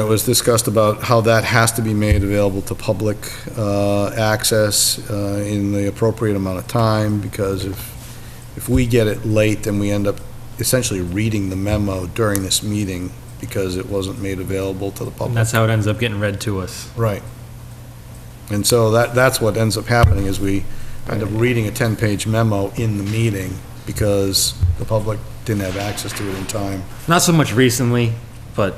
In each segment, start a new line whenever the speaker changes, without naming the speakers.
It was discussed about how that has to be made available to public uh, access uh, in the appropriate amount of time, because if, if we get it late, then we end up essentially reading the memo during this meeting, because it wasn't made available to the
And
public.
that's how it ends up getting read to us.
Right. And so that, that's what ends up happening, is we end up reading a 10-page memo in the meeting, because the public didn't have access to it in time.
Not so much recently, but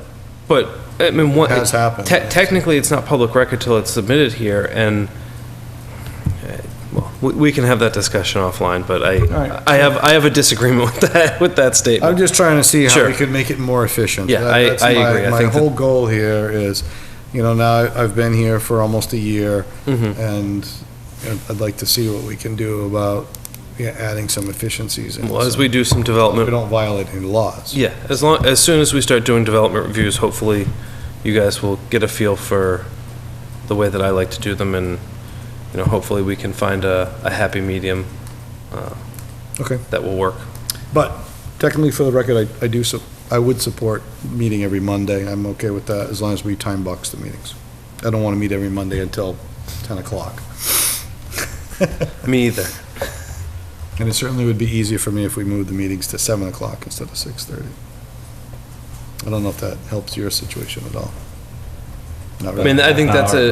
But, I mean, what,
It has happened.
te- technically, it's not public record till it's submitted here, and, uh, well, we, we can have that discussion offline, but
right.
I, I have, I have a disagreement with that, with that
I'm
statement.
just trying to see how we
Sure.
could make it more efficient.
Yeah,
That-
I-
that's
I
my-
agree. I
My
think that-
whole goal here is, you know, now I've been here for almost a year,
Mhm.
and I'd like to see what we can do about yeah, adding some efficiencies. in it,
Well, as
so
we do some
We
development,
don't violate any laws.
yeah, as long, as soon as we start doing development reviews, hopefully, you guys will get a feel for the way that I like to do them, and, you know, hopefully, we can find a, a happy medium uh,
Okay.
that will work.
But technically, for the record, I I do, sup- I would support meeting every Monday. I'm okay with that, as long as we time box the meetings. I don't want to meet every Monday until 10 o'clock.
Me either.
And it certainly would be easier for me if we moved the meetings to 7 o'clock instead of 6:30. I don't know if that helps your situation at all. Not
I mean,
really.
I think that's a,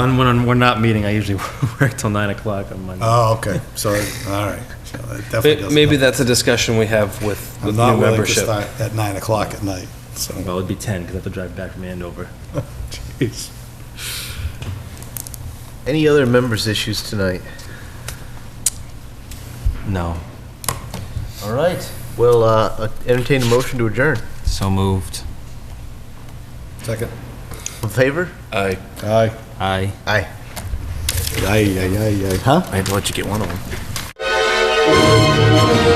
on, when we're not meeting, I usually work till nine o'clock on Monday.
Oh, okay, so, all right. So that definitely
May-
doesn't
Maybe
help.
that's a discussion we have with
I'm
with
not
new
willing to
membership.
start at 9 o'clock at night, so.
Well, it'd be ten, because I have to drive back from Andover.
Jeez.
Any other members' issues tonight?
No.
All right. We'll uh, entertain a motion to adjourn.
So moved.
Second.
In favor?
Aye.
Aye.
Aye.
Aye.
Aye, aye, aye, aye. Huh?
I had to let you get one of them.